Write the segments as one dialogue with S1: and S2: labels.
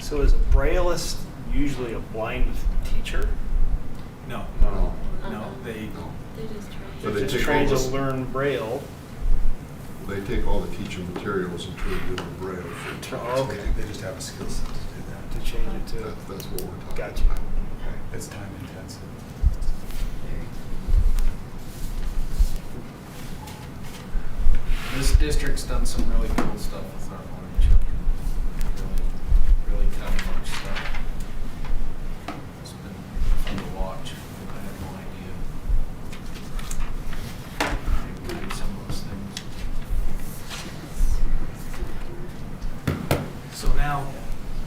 S1: So is a brailleist usually a blind teacher?
S2: No,
S3: No.
S2: no, they,
S4: They just
S3: So
S4: try.
S3: they
S1: They're just
S3: take
S1: trying
S3: all
S1: to
S3: this-
S1: learn braille.
S3: They take all the teaching materials and turn it into braille. for
S1: Turn-
S3: kids.
S1: okay.
S2: Oh, they just have a skill set to do
S1: To
S2: that.
S1: change it to.
S3: That- That's what we're talking about.
S1: Gotcha. Okay.
S2: It's time intensive.
S5: This district's done some really cool stuff with our voting children. Really, really kind of much stuff. It's been fun to watch. I had no idea. They did some of those things.
S2: So now,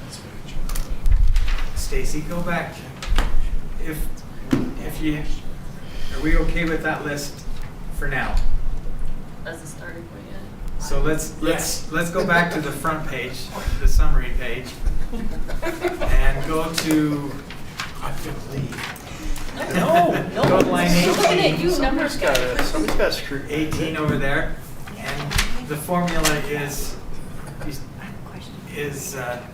S5: That's very challenging.
S2: Stacy, go back. If, if you, are we okay with that list for now?
S4: As a starting point, yeah.
S2: So let's, let's, let's go back to the front page, the summary page, and go to, I believe, No, no. Go to line
S4: She's looking
S2: 18.
S4: at you, numbers
S1: Somebody's
S4: guy.
S1: gotta, somebody's gotta screw.
S2: 18 over there. And the formula is, is, uh,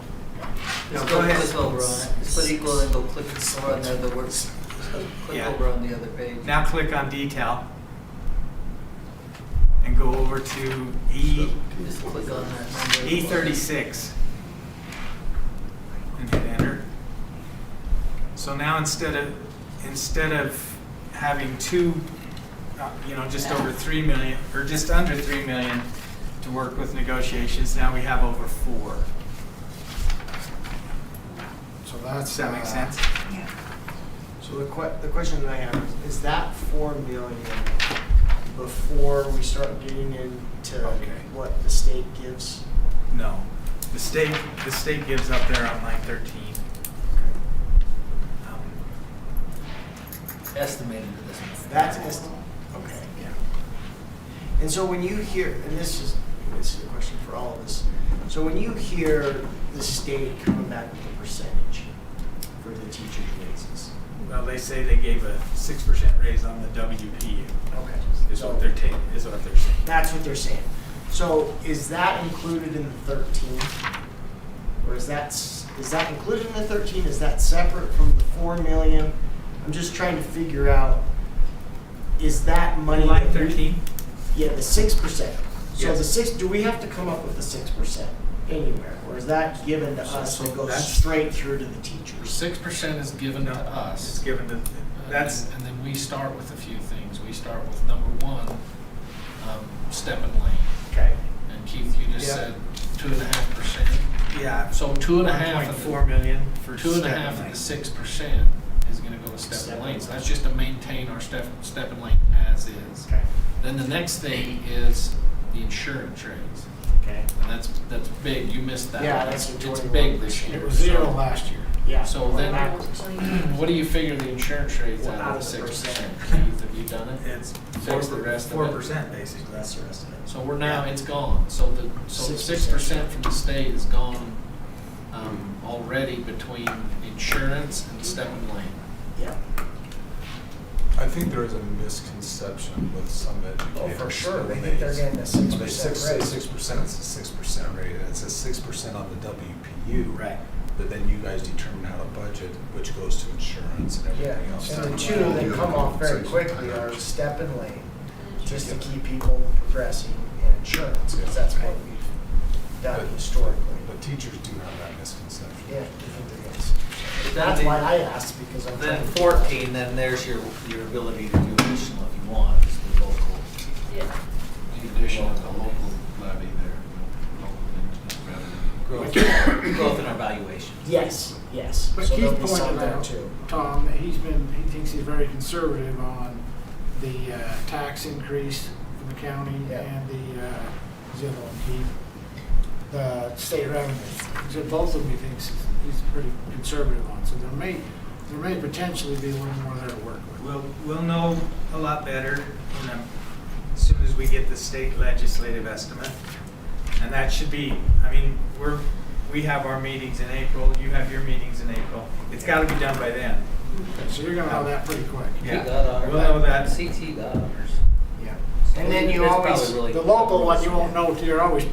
S2: no,
S6: Just
S2: go
S6: go
S2: ahead.
S6: click over on it. Just put equal and go click over on the other words. Click
S2: Yeah.
S6: over on the other page.
S2: Now click on detail. And go over to E,
S6: Just click on that number.
S2: E thirty-six. And hit enter. So now instead of, instead of having two, uh, you know, just over three million, or just under three million to work with negotiations, now we have over four.
S7: So that's.
S2: Does that make
S7: uh,
S2: sense?
S7: So the que, the question that I have is, is that four million before we start getting into
S2: Okay.
S7: what the state gives?
S2: No. The state, the state gives up there on line thirteen. Um,
S6: Estimated at this point.
S7: That's est, okay, yeah. And so when you hear, and this is, this is a question for all of us. So when you hear the state coming back with a percentage for the teacher's raises.
S2: Well, they say they gave a six percent raise on the WPU,
S7: Okay.
S2: is what they're taking, is what they're saying.
S7: That's what they're saying. So is that included in the thirteen? Or is that, s- is that included in the thirteen? Is that separate from the four million? I'm just trying to figure out, is that money?
S2: Line
S7: that we-
S2: thirteen,
S7: Yeah, the six percent. So the
S2: Yes.
S7: six, do we have to come up with the six percent anywhere? Or is that given to
S5: So-
S7: us
S5: so
S7: that goes
S5: that's-
S7: straight through to the teachers?
S5: Six percent is given to
S2: it's
S5: us.
S2: given to,
S5: Uh,
S2: that's,
S5: And then we start with a few things. We start with number one, um, step and lane.
S7: Okay.
S5: And Keith, you just
S2: Yeah.
S5: said two and a half percent.
S2: yeah.
S5: So two and a half.
S2: One
S5: of
S2: point
S5: the-
S2: four million for.
S5: Two and a
S2: step
S5: half of
S2: lane.
S5: the six percent is gonna go to step and lane, so that's just to maintain our step, step and lane as is.
S7: Okay.
S5: Then the next thing is the insurance rates,
S7: Okay.
S5: and that's, that's big, you missed that.
S7: Yeah,
S5: one.
S7: that's a
S5: It's
S7: 21%.
S5: big this year. so-
S7: year. Yeah.
S5: So
S7: we're
S5: then-
S7: backwards.
S4: Hmm,
S5: What do you figure the insurance rates
S7: Well,
S5: out of
S7: out
S5: the
S7: of the
S5: six percent,
S7: percent.
S5: Keith, have you done it?
S2: It's
S5: Fix the rest of
S2: four
S5: it.
S2: percent basically.
S7: That's the rest of it.
S5: So we're now, it's gone, so the, so the six
S7: 6%.
S5: percent from the state is gone, um, already between insurance and step and lane.
S7: Yeah.
S8: I think there is a misconception with some educators.
S7: Oh, for sure, they
S8: when
S7: think they're getting a six
S8: when they six-
S7: percent
S8: say
S7: raise.
S8: Six percent, it's a six percent rate, and it says six percent on the WPU.
S2: Right.
S8: But then you guys determine how to budget, which goes to insurance and
S7: Yeah,
S8: everything else.
S7: and the two that come off very quickly are step and lane, just to keep people progressing and insurance, because that's what we've done historically.
S8: But teachers do have that misconception.
S7: Yeah, I think there is. That's why I asked, because I'm trying
S6: Then
S7: to.
S6: fourteen, then there's your, your ability to do additional if you want, is the local.
S4: Yeah.
S5: The addition of the local levy there, local revenue.
S6: Growth, growth and evaluation.
S7: Yes, yes.
S9: But
S7: So there'll
S9: Keith
S7: be some
S9: pointed
S7: there
S9: out,
S7: too.
S9: Tom, that he's been, he thinks he's very conservative on the uh, tax increase for the county
S7: Yeah.
S9: and the, uh, what's the other one, Keith? The state revenue. So both of them he thinks he's pretty conservative on, so there may, there may potentially be a little more there to work with.
S2: We'll, we'll know a lot better, you know, as soon as we get the state legislative estimate. And that should be, I mean, we're, we have our meetings in April, you have your meetings in April. It's gotta be done by then.
S9: So you're gonna have that pretty quick.
S2: Yeah.
S6: We got our-
S2: We'll know that.
S6: CT got ours.
S7: Yeah. And then you
S6: It's probably
S7: always,
S6: really-
S9: The local one, you won't know till you're always